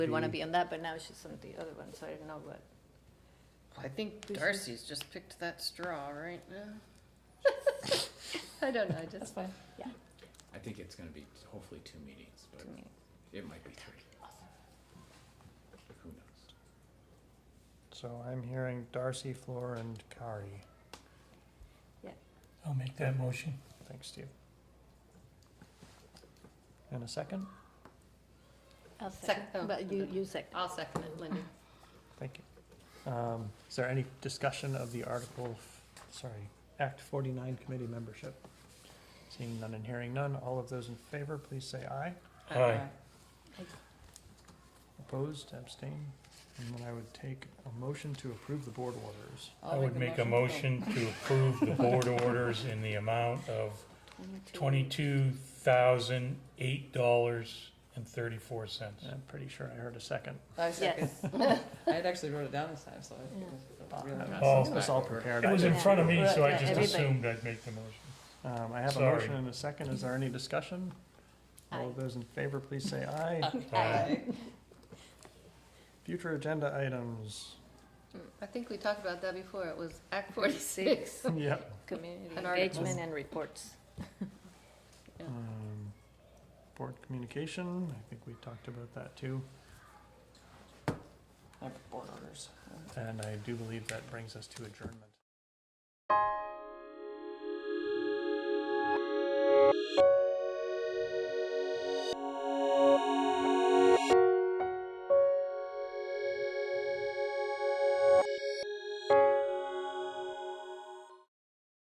would want to be on that, but now she's on the other one, so I don't know what. I think We should- Darcy's just picked that straw right now. I don't know, I just. fine. I think it's gonna be hopefully two meetings, but it might be three. Who knows? So I'm hearing Darcy, Floor, and Kari. I'll make that motion. Thanks, Steve. And a second? I'll second, Sec- oh, but you, okay. you second. I'll second it, Linda. Thank you. Um, Is there any discussion of the article, f- sorry, Act 49 committee membership? Seeing none and hearing none, all of those in favor, please say aye. Aye. Opposed, abstained? And then I would take a motion to approve the board orders. I would make a motion to approve the board orders in the amount of twenty-two thousand, eight dollars and thirty-four cents. I'm pretty sure I heard a second. I Yes. I had actually wrote it down this time, so I think Uh, Oh. It was all prepared. It was in Yeah. front of me, so I Yeah, just everybody. assumed I'd make the motion. Um, I have a Sorry. motion and a second. Is there any discussion? All of those in favor, please say aye. Aye. Future agenda items. I think we talked about that before, it was Act forty-six. Yep. Community An article. engagement and reports. Yeah. Um, Board communication, I think we talked about that too. Board orders. And I do believe that brings us to adjournment.